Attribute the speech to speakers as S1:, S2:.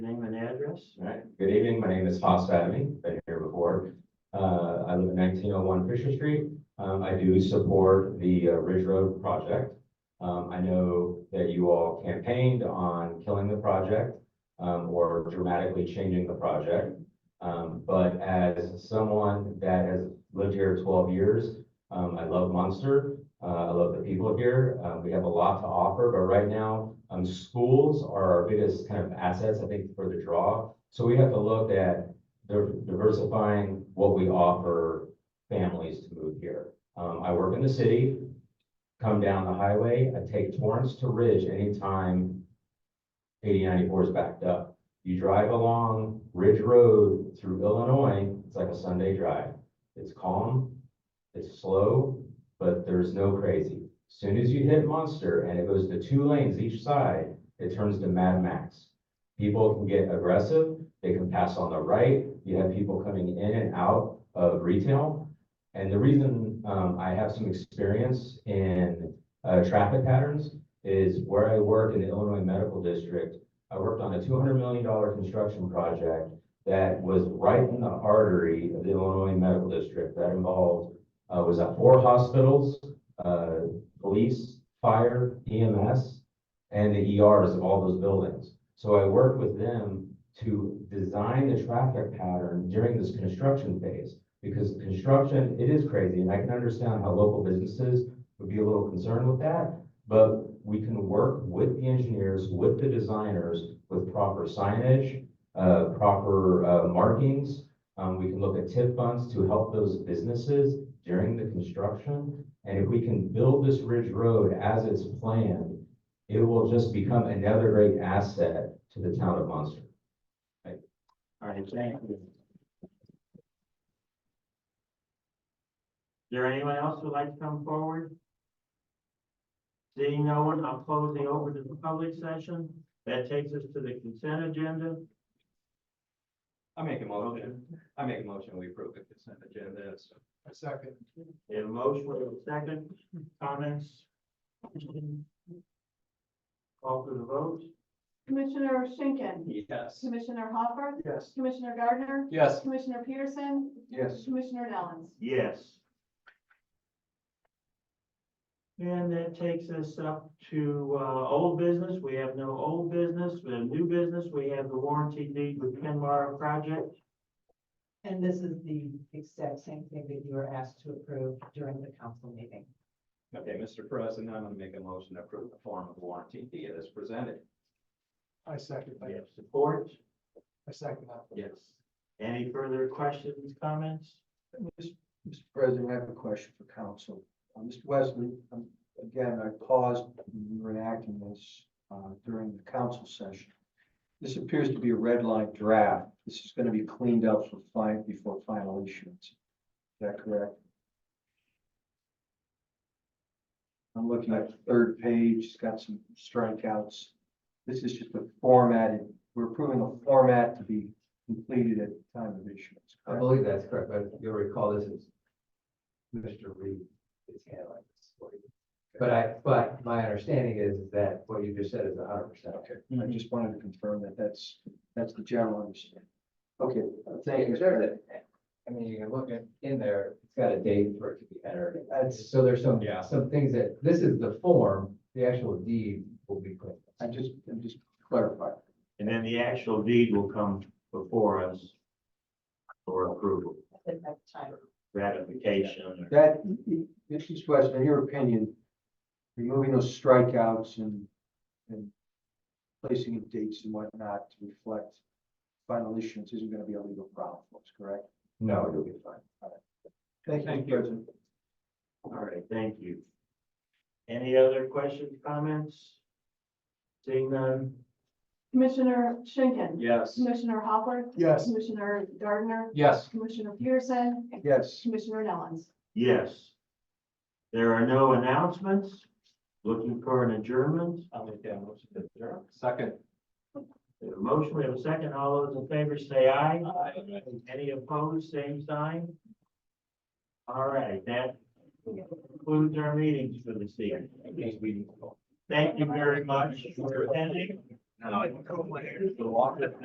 S1: Yes. All right, good evening. My name is Haas Fadamy. Been here before. Uh, I live at nineteen oh one Fisher Street. Um, I do support the uh, Ridge Road project. Um, I know that you all campaigned on killing the project, um, or dramatically changing the project. Um, but as someone that has lived here twelve years, um, I love Munster. Uh, I love the people here. Uh, we have a lot to offer, but right now, um, schools are our biggest kind of assets, I think, for the draw. So we have to look at diver- diversifying what we offer families to move here. Um, I work in the city, come down the highway, I take Torrance to Ridge anytime eighty ninety-four is backed up. You drive along Ridge Road through Illinois, it's like a Sunday drive. It's calm, it's slow, but there's no crazy. Soon as you hit Monster and it goes to two lanes each side, it turns to Mad Max. People can get aggressive, they can pass on the right, you have people coming in and out of retail. And the reason, um, I have some experience in, uh, traffic patterns is where I work in the Illinois Medical District. I worked on a two hundred million dollar construction project that was right in the artery of the Illinois Medical District that involved, uh, was at four hospitals, uh, police, fire, EMS, and the ERs of all those buildings. So I worked with them to design the traffic pattern during this construction phase. Because construction, it is crazy, and I can understand how local businesses would be a little concerned with that. But we can work with the engineers, with the designers, with proper signage, uh, proper, uh, markings. Um, we can look at TIF funds to help those businesses during the construction. And if we can build this Ridge Road as it's planned, it will just become another great asset to the town of Munster.
S2: All right, thank you. Is there anyone else who'd like to come forward? Seeing no one, I'll close the open to the public session. That takes us to the consent agenda.
S3: I make a motion, I make a motion, we approve the consent agenda, so.
S4: A second.
S2: We have a motion, we have a second, comments? Call for the vote?
S5: Commissioner Schinkin.
S3: Yes.
S5: Commissioner Hopper.
S4: Yes.
S5: Commissioner Gardner.
S4: Yes.
S5: Commissioner Peterson.
S4: Yes.
S5: Commissioner Nellens.
S2: Yes. And that takes us up to, uh, old business. We have no old business, we have new business. We have the warranty deed with Kenmar project.
S6: And this is the exact same thing that you were asked to approve during the council meeting.
S3: Okay, Mr. President, I'm gonna make a motion to approve the form of warranty deed as presented.
S4: I second
S2: We
S4: that.
S2: have support.
S4: I second that.
S3: Yes.
S2: Any further questions, comments?
S4: Mr. President, I have a question for council. Uh, Mr. Wesley, um, again, I paused when you were enacting this uh, during the council session. This appears to be a red line draft. This is going to be cleaned up for fine, before final issuance. Is that correct? I'm looking at the third page, it's got some strikeouts. This is just a formatted, we're approving a format to be completed at the time of issuance.
S7: I
S4: correct?
S7: believe that's correct, but you'll recall this is Mr. Reed is handling this for you. But I, but my understanding is that what you just said is hundred percent.
S4: Okay, I just wanted to confirm that that's, that's the general understanding. Okay, uh, thank you.
S7: I mean, you can look at, in there, it's got a date for it to be entered.
S4: That's,
S7: So there's some,
S3: Yeah.
S7: some things that, this is the form, the actual deed will be put.
S4: I just, I'm just clarifying.
S2: And then the actual deed will come before us for approval,
S6: At that time,
S2: ratification. or-
S4: That, Mrs. Weston, in your opinion, removing those strikeouts and, and placing in dates and whatnot to reflect final issuance isn't gonna be a legal problem, for us, correct?
S7: No, it'll be fine.
S4: Thank you, Mr. President.
S2: All right, thank you. Any other questions, comments? Seeing none?
S5: Commissioner Schinkin.
S3: Yes.
S5: Commissioner Hopper.
S4: Yes.
S5: Commissioner Gardner.
S4: Yes.
S5: Commissioner Peterson.
S4: Yes.
S5: Commissioner Nellens.
S2: Yes. There are no announcements. Looking for an adjournment.
S3: I'll make that motion to adjourn.
S4: Second.
S2: We have a motion, we have a second. All those in favor say aye. Any opposed, same sign? All right, that concludes our meetings for this evening. Thank you very much for attending.
S3: No, I can go later. The walk-